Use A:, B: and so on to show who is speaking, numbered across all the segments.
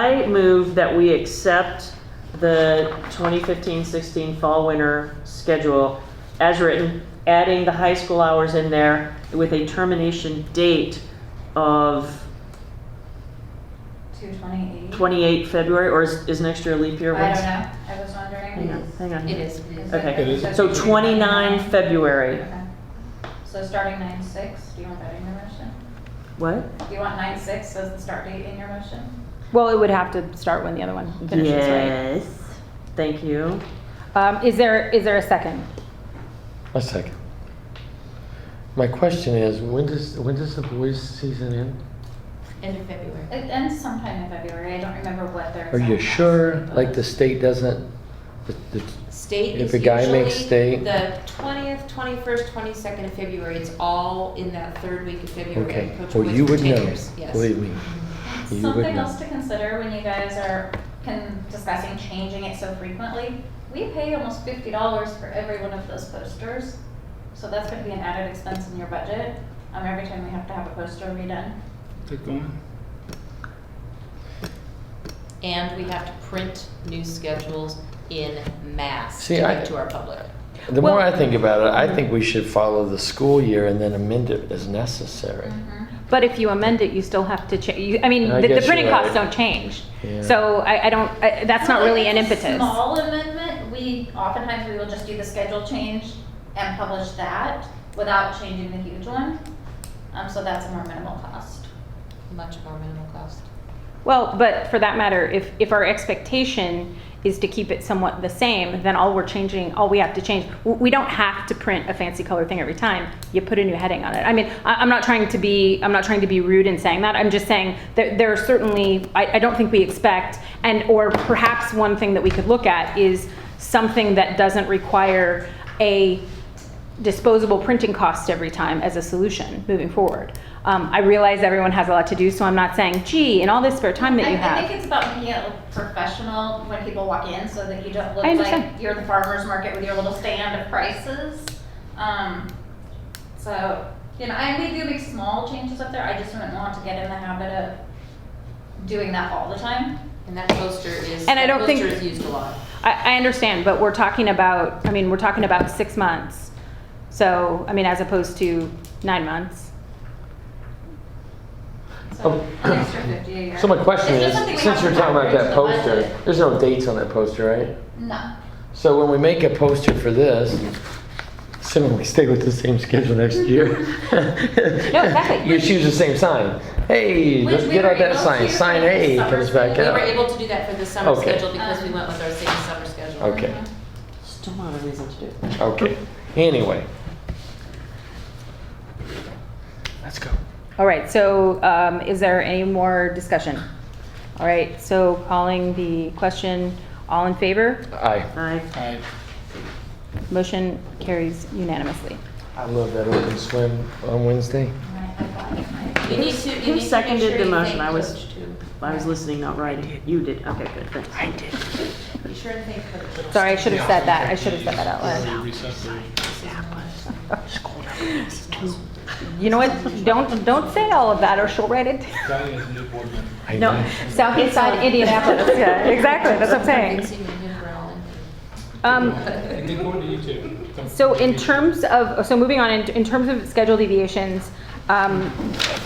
A: I move that we accept the 2015-16 fall/winter schedule as written, adding the high school hours in there with a termination date of
B: Two twenty-eight?
A: 28 February, or is is next year a leap year?
B: I
A: What's-
B: don't know, I was wondering.
A: Hang on, hang on.
C: It is.
B: Is
A: Okay.
D: It is.
B: it-
A: So 29 February,
B: Okay. So starting nine six, do you want that in your motion?
A: what?
B: Do you want nine six as the start date in your motion?
C: Well, it would have to start when the other one finishes, right?
A: Yes, thank you.
C: Um, is there, is there a second?
D: A second. My question is, when does, when does the boys season end?
E: End of February.
B: It ends sometime in February, I don't remember what their.
D: Are you
B: exact
D: sure,
B: policy was.
D: like the state doesn't, the- the-
E: State
D: If
E: is
D: a guy makes
E: usually
D: state-
E: The twentieth, twenty-first, twenty-second of February, it's all in that third week of February.
D: okay,
E: Coach
D: well,
E: Woods
D: you would know,
E: retires, Yes.
D: believe me. You would
B: Something
D: know.
B: else to consider when you guys are can, discussing changing it so frequently, we pay almost fifty dollars for every one of those posters. So that's gonna be an added expense in your budget, um, every time we have to have a poster redone.
F: Keep going.
E: And we have to print new schedules in mass to
D: See, I-
E: give to our public.
D: The more I
C: Well-
D: think about it, I think we should follow the school year and then amend it as necessary.
C: But if you amend it, you still have to change, I mean,
D: I
C: the, the
D: guess
C: printing
D: you're
C: costs
D: right.
C: don't change.
D: Yeah.
C: So I, I don't, I, that's not really an
B: It's a
C: impetus.
B: Small amendment, we, oftentimes we will just do the schedule change and publish that without changing the huge one. Um, so that's a more minimal cost.
E: Much more minimal cost.
C: Well, but for that matter, if, if our expectation is to keep it somewhat the same, then all we're changing, all we have to change, w- we don't have to print a fancy color thing every time. You put a new heading on it. I mean, I, I'm not trying to be, I'm not trying to be rude in saying that. I'm just saying that there are certainly, I, I don't think we expect, and, or perhaps one thing that we could look at is something that doesn't require a disposable printing cost every time as a solution moving forward. Um, I realize everyone has a lot to do, so I'm not saying, gee, in all this spare time that
B: I-
C: you
B: I think
C: have.
B: it's about making it look professional when people walk in so that you don't look
C: I
B: like
C: understand.
B: you're the farmer's market with your little stand of prices. Um, so, you know, I may do make small changes up there, I just wouldn't want to get in the habit of doing that all the time.
E: And that poster is,
C: And I
E: that
C: don't think-
E: poster is used a lot.
C: I, I understand, but we're talking about, I mean, we're talking about six months. So, I mean, as opposed to nine months.
B: So,
D: Um,
B: an extra fifty a year.
D: So my question
B: It's
D: is,
B: just something we
D: since
B: have
D: you're
B: to
D: talking about
B: factor
D: that
B: into the
D: poster,
B: budget.
D: there's no dates on that poster, right?
B: No.
D: So when we make a poster for this, assuming we stay with the same schedule next year. No,
C: exactly.
D: You choose the same sign. Hey,
B: Which
D: let's
B: we
D: get
B: were
D: out that
B: able
D: sign,
B: to
D: sign
B: for the
D: A
B: summer
D: comes back
E: We were
D: out.
E: able to do that for the summer
D: Okay.
E: schedule because
A: Um,
E: we went with our same summer schedule.
D: Okay,
A: Still not a reason to do it.
D: okay. Anyway. Let's go.
C: All right, so, um, is there any more discussion? All right, so calling the question, all in favor?
D: I,
A: Aye.
F: I
C: Motion carries unanimously.
D: I love that open swim on Wednesday.
B: I'm gonna have that in my-
E: You need to, you need to
A: Who
E: make
A: seconded
E: sure
A: the
E: you
A: motion? I
E: thank
A: was-
E: Coach, too.
A: I was listening, not writing. You did, okay, good, thanks. I did.
E: Be sure and thank Coach.
C: Sorry, I should have said that. I should have said that out loud.
F: Already receptive.
C: You know what? Don't don't say all of that, or she'll write it.
F: Diane is a new board member.
D: I
A: No.
D: know.
C: Southeastside Indianapolis. Yeah, exactly. That's what I'm saying. Um,
F: And then go to YouTube. Come-
C: so in terms of so moving on in, in terms of schedule deviations, um,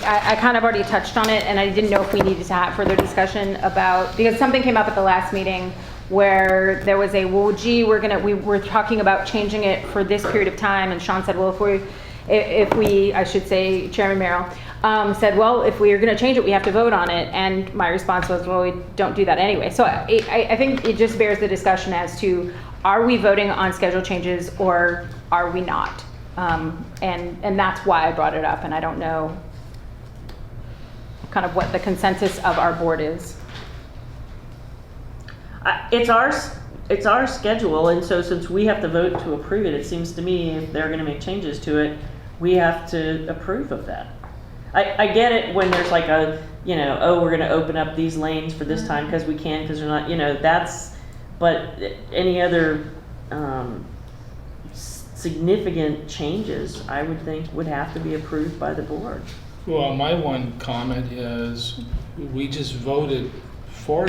C: I, I kind of already touched on it, and I didn't know if we needed to have further discussion about because something came up at the last meeting where there was a well, gee, we're gonna we were talking about changing it for this period of time, and Sean said, well, if we if if we, I should say Chairman Merrill, um, said, well, if we are going to change it, we have to vote on it. And my response was, well, we don't do that anyway. So I, I I think it just bears the discussion as to, are we voting on schedule changes or are we not? Um, and, and that's why I brought it up, and I don't know kind of what the consensus of our board is.
A: I- Uh, It's our, s- it's our schedule, and so since we have to vote to approve it, it seems to me if they're gonna make changes to it, we have to approve of that. I, I get it when there's like a, you know, oh, we're gonna open up these lanes for this time because we can, because we're not, you know, that's, but any other, um, s- significant changes, I would think would have to be approved by the board.
F: Well, my one comment is, we just voted